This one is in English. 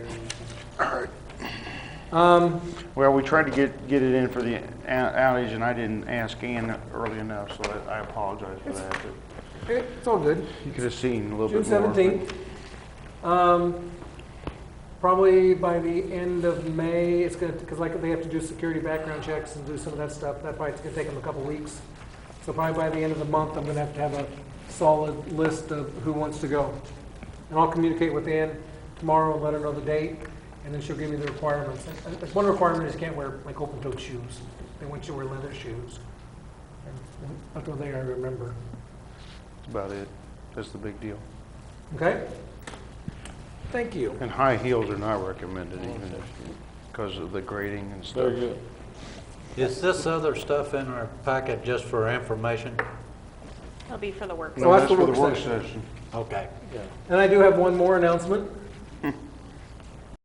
Um, Well, we tried to get, get it in for the ou- outage, and I didn't ask Ann early enough, so I I apologize for that. but It's all good. You could have seen a little June bit more. seventeenth. Um, probably by the end of May, it's gonna, because like, they have to do security background checks and do some of that stuff. That probably, it's gonna take them a couple weeks. So probably by the end of the month, I'm gonna have to have a solid list of who wants to go. And I'll communicate with Ann tomorrow and let her know the date, and then she'll give me the requirements. And- and One requirement is you can't wear like open-toed shoes. They want you to wear leather shoes. And That's the only thing I remember. That's about it. That's the big deal. Okay? Thank you. And high heels are not recommended even because of the grading and stuff. Very good. Is this other stuff in our packet just for information? It'll be for the work. No, Oh, that's that's the for the work work session. Okay. And I do have one more announcement.